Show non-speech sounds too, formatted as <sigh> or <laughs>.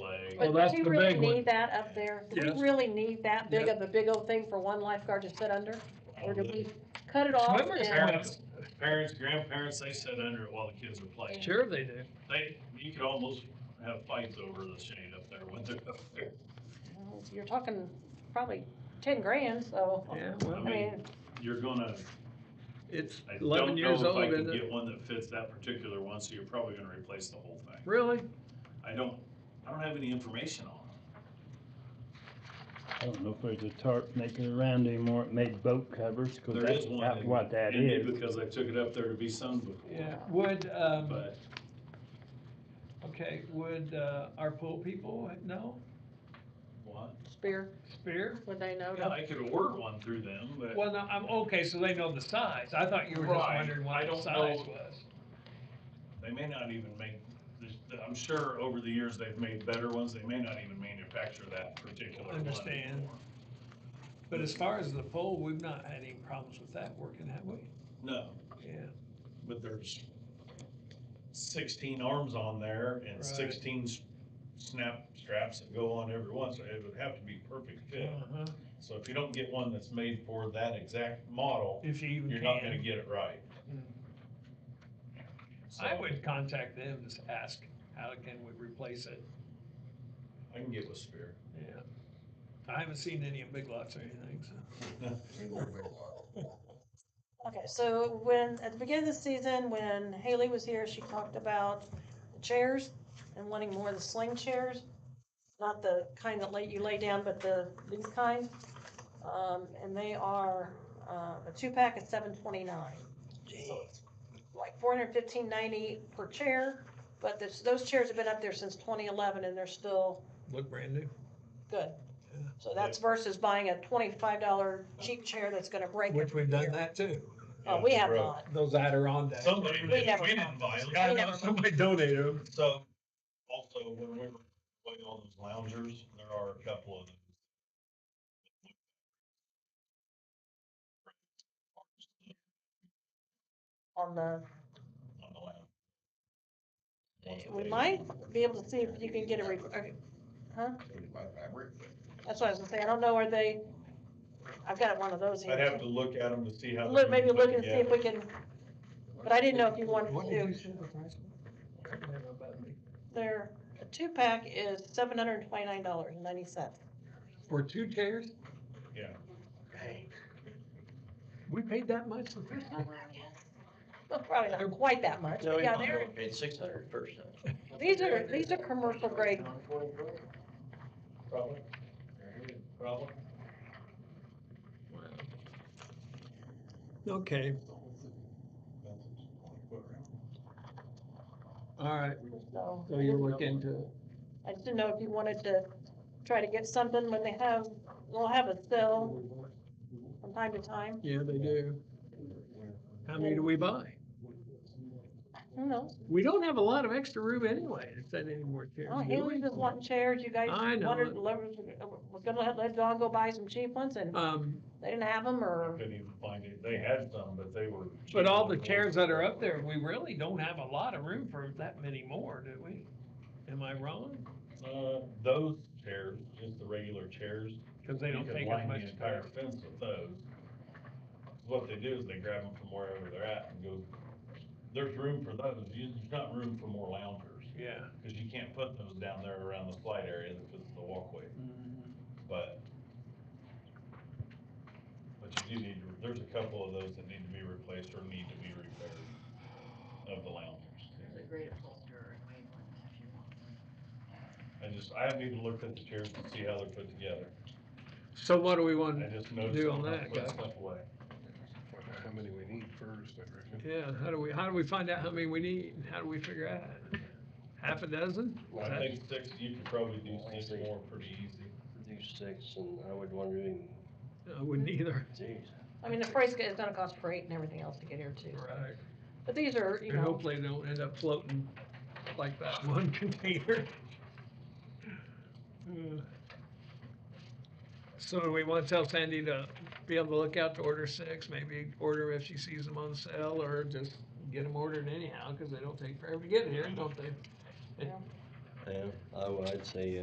Well, but that's do we the really big need one. that up there? Do Yes. we really need that big Yes. of a big old thing for one lifeguard to sit under? Or do we cut it off? Swimmers and- have- Parents, parents, grandparents, they sit under it while the kids are playing. Sure they do. They, you could almost have fights over the shade up there when they're up there. Well, You're talking probably ten grand, so, Yeah, I I well, mean, mean, You're gonna, it's I eleven don't know years if old, I can isn't it? get one that fits that particular one, so you're probably gonna replace the whole thing. Really? I don't, I don't have any information on it. I don't know if there's a tarp making around anymore, it made boat covers, cause There that's is one. about in- what that in me is. Because I took it up there to be sung Yeah, before, would, um, but okay, would, uh, our pool people know, what? spear, Spear? would they know? Yeah, I could order one through them, but. Well, no, I'm, okay, so they know the size, I thought you were just Right, wondering I what the don't size know. was. They may not even make, there's- I'm sure over the years they've made better ones, they may not even manufacture that particular one. Understand. anymore. But as far as the pool, we've not had any problems with that working, have we? No, Yeah, but there's sixteen arms on there and Right. sixteen s- snap straps that go on every one, so it would have to be perfect fit. uh-huh, So if you don't get one that's made for that exact model, if you even you're not gonna can. get it right. I So, would contact them, just ask, how can we replace it, I can get with Spear. yeah. I haven't seen any in Big Lots or anything, so. Okay, so when, at the beginning of the season, when Haley was here, she talked about the chairs and wanting more of the sling chairs. Not the kind that lay, you lay down, but the, these kind. Um, and they are, uh, a two-pack is seven twenty-nine. Like four hundred fifteen ninety per chair, but this, those chairs have been up there since twenty eleven and they're still Look brand new. good. So that's versus buying a twenty-five dollar cheap chair that's gonna break. Which every we've done year. that too, Oh, we have Bro. not. those Adirondacks. Somebody, We we never didn't buy them. We never- Somebody donated them. So, also, when we were playing all those loungers, there are a couple of them. on the, on the lounge. Ones that we they- might be able to see if you can get a, re- okay, that's what I was gonna say, I don't know, are they, I've got one of those I'd have here. to look at them to see how. Look, they're maybe look and see if together. we can, but I didn't know if you wanted What did to you do, say the price was? their, a two-pack is seven hundred and twenty-nine dollars and ninety cents. For two chairs? Yeah. We paid that much for this? Probably not quite that much, No, but we yeah, might they're, have paid six hundred first. these are, these are commercial grade, Probably. Probably. Okay, all right, so. so you'll look into it. I just didn't know if you wanted to try to get something when they have, they'll have a sale from time to time, Yeah, they do. How many do we buy? who knows? We don't have a lot of extra room anyway, if that any more chairs, Oh, do Haley's we? just wanting chairs, you guys I know wondered, it. lovers, was gonna let, let Dawn go buy some cheap ones and Um, they didn't have them or, Couldn't even find it. They had some, but they were. but all the chairs that are up there, we really don't have a lot of room for that many more, do we? Am I wrong? Uh, those chairs, just the regular chairs. Cause they you don't could take as line much The space. entire fence with those. What they do is they grab them from wherever they're at and go, there's room for those. You- There's not room for more loungers. Yeah. Cause you can't put those down there around the slide area because of the walkway, but. But you do need to, there's a couple of those that need to be replaced or need to be repaired of the loungers. There's a great holder in Waveland if you want one. I just, I haven't even looked at the chairs to see how they're put together. So what do we I want, just noticed. Do on when I that, put guys. stuff away. How many we need first, I reckon. yeah, how do we, how do we find out how many we need, how do we figure out? Half a dozen? Is I that- think six, you could probably do six more pretty easy. Do six and I would want to do, I wouldn't either. geez. I mean, the price is gonna cost freight and everything else to get here too. Right. But these are, you And know, hopefully they don't end up floating like that <laughs> one container. Uh, So do we want to tell Sandy to be on the lookout to order six, maybe order if she sees them on sale, or just get them ordered anyhow, because they don't take forever to get here, don't they? Yeah, I would, I'd say, uh,